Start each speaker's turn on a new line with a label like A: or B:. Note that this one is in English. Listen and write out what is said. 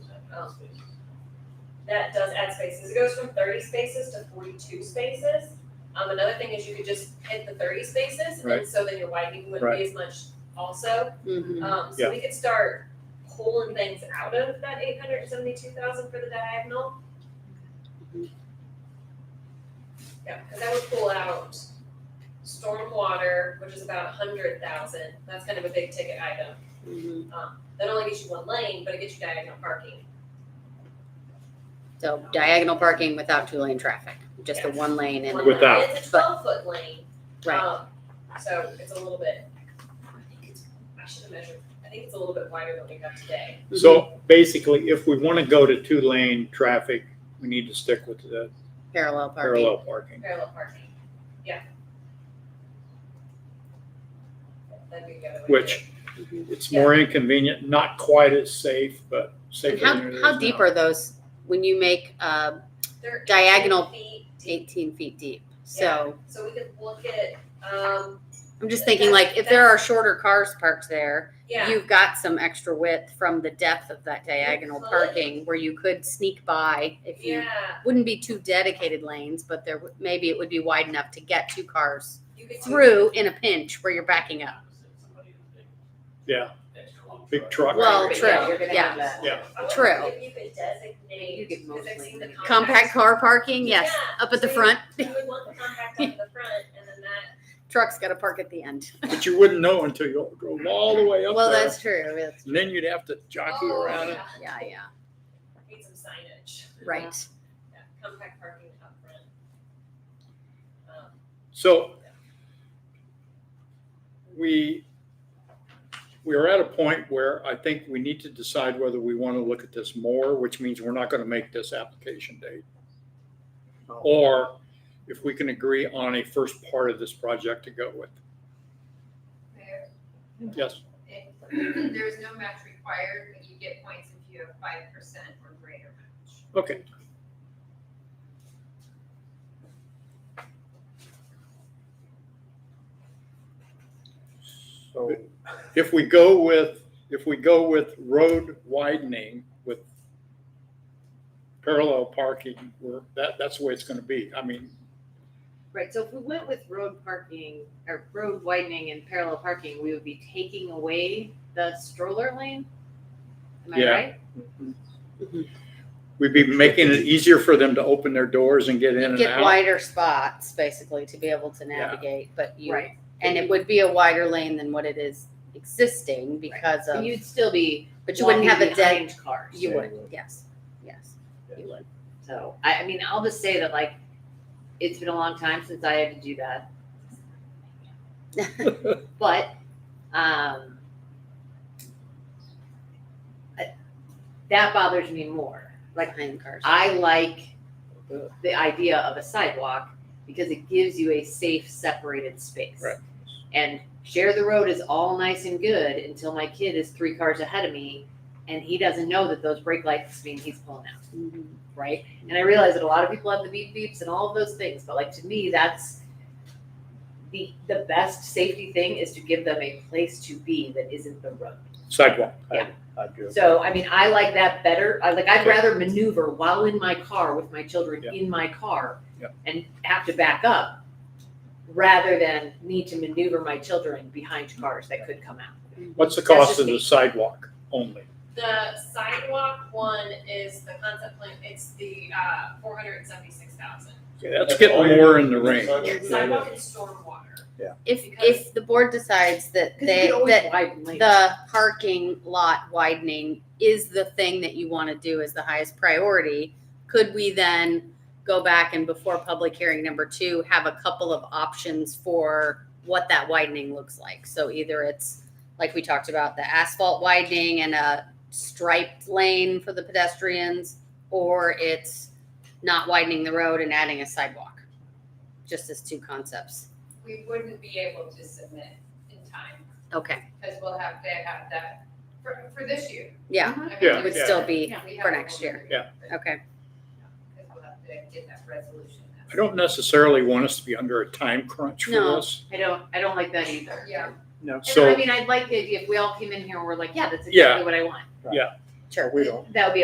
A: Oh.
B: that does add spaces. It goes from thirty spaces to forty-two spaces. Um, another thing is you could just hit the thirty spaces, and
C: Right.
B: so then your widening wouldn't be as much also. Um,
C: Yeah.
B: so we could start pulling things out of that eight hundred and seventy-two thousand for the diagonal. Yeah, cause that would pull out stormwater, which is about a hundred thousand. That's kind of a big ticket item. Um, that only gets you one lane, but it gets you diagonal parking.
A: So diagonal parking without two lane traffic, just the
B: Yeah.
A: one lane and.
B: one
C: With- Without.
B: lane. It's a twelve foot lane.
A: Right.
B: um, So it's a little bit, I think it's, I should have measured, I think it's a little bit wider than we have today.
C: So basically, if we want to go to two-lane traffic, we need to stick with the
A: Parallel parking.
C: parallel parking.
B: Parallel parking, yeah. That'd be a good way to do
C: Which-
B: it.
A: Mhm.
C: It's more inconvenient, not quite as safe, but
A: And
C: safer than it
A: how,
C: is
A: how deep
C: now.
A: are those, when you make, uh,
B: They're eight
A: Diagonal
B: feet deep,
A: eighteen feet deep? So
B: So we could look at, um,
A: I'm just thinking like, if there are shorter cars parked there,
B: yeah,
A: you've got some extra width from the depth of that diagonal
B: could.
A: parking where you could sneak by if you,
B: yeah,
A: wouldn't be two dedicated lanes, but there, would- maybe it would be wide enough to get two cars
B: you could. do-
A: through in a pinch where you're backing up.
C: Yeah.
D: Extra long
C: Big truck.
A: Well,
B: Right,
A: true,
B: yeah,
E: you're gonna
A: yeah.
E: have that.
C: Yeah.
B: I wonder
A: true.
B: If you could
E: You
B: designate,
E: could
B: because I've
E: mostly-
B: seen the compact.
A: Compact car parking, yes,
B: Yeah,
A: up at the
B: so
A: front.
B: You would want the compact up at the front and then that
A: Truck's gotta park at the end.
C: But you wouldn't know until you drove all the way up
A: Well,
C: there.
A: that's true, that's,
C: And then you'd have to jockey
B: Oh,
C: around it.
A: yeah, yeah,
B: Need some signage.
A: right.
B: Yeah, compact parking up front. Um,
C: So we, we're at a point where I think we need to decide whether we want to look at this more, which means we're not going to make this application date. Or if we can agree on a first part of this project to go with.
F: Mayor,
C: Yes,
F: if there is no match required, but you get points if you have five percent or greater match.
C: okay.
G: So,
C: If we go with, if we go with road widening with parallel parking, we're, that, that's the way it's going to be. I mean,
E: Right, so if we went with road parking or road widening and parallel parking, we would be taking away the stroller lane? Am I
C: Yeah.
E: right?
C: We'd be making it easier for them to open their doors and get in and
A: Get
C: out.
A: wider spots basically to be able to navigate, but you,
E: Right.
A: and it would be a wider lane than what it is existing because
E: But
A: of,
E: you'd still be
A: but you wouldn't have
E: walking
A: a dead,
E: behind cars.
A: you would,
G: Anyway.
A: yes, yes, you would.
E: So I, I mean, I'll just say that like, it's been a long time since I had to do that. But, um, I- that bothers me more. Like,
A: Behind cars.
E: I like the idea of a sidewalk because it gives you a safe, separated space.
C: Right.
E: And share the road is all nice and good until my kid is three cars ahead of me and he doesn't know that those brake lights mean he's pulling out,
A: Mhm.
E: right? And I realize that a lot of people have the beep beeps and all of those things, but like to me, that's the the best safety thing is to give them a place to be that isn't the road.
C: Sidewalk.
G: I do.
E: So, I mean, I like that better. I like, I'd
C: Okay.
E: rather maneuver while in my car with my children
C: Yeah.
E: in my car
C: Yeah.
E: and have to back up rather than need to maneuver my children behind
C: Mm-hmm.
E: cars that could come out.
C: What's the
E: That's
C: cost
E: just
C: of the
E: me.
C: sidewalk only?
B: The sidewalk one is the concept plan, it's the, uh, four hundred and seventy-six thousand.
C: Okay, That's getting more in the range.
B: Sidewalk and stormwater.
A: If,
B: Because-
A: if the board decides that
E: Because you
A: they,
E: could always
A: that
E: widen lanes.
A: the parking lot widening is the thing that you want to do as the highest priority, could we then go back and before public hearing number two, have a couple of options for what that widening looks like? So either it's, like we talked about, the asphalt widening and a striped lane for the pedestrians, or it's not widening the road and adding a sidewalk, just as two concepts.
F: We wouldn't be able to submit in time,
A: Okay,
F: because we'll have to have that for, for this year.
A: yeah,
F: I mean,
C: Yeah,
A: it would
C: yeah.
A: still be,
F: we have
A: for
F: a
A: next
F: whole
A: year.
F: year, but-
A: okay.
F: Because we'll have to get that resolution.
C: I don't necessarily want us to be under a time crunch for
A: No.
C: this.
E: I don't, I don't like that either.
F: Yeah,
G: No.
E: And I
C: So
E: mean, I'd like the idea if we all came in here and were like, yeah, that's
C: Yeah.
E: exactly what I want.
A: Sure.
C: we don't.
E: That would be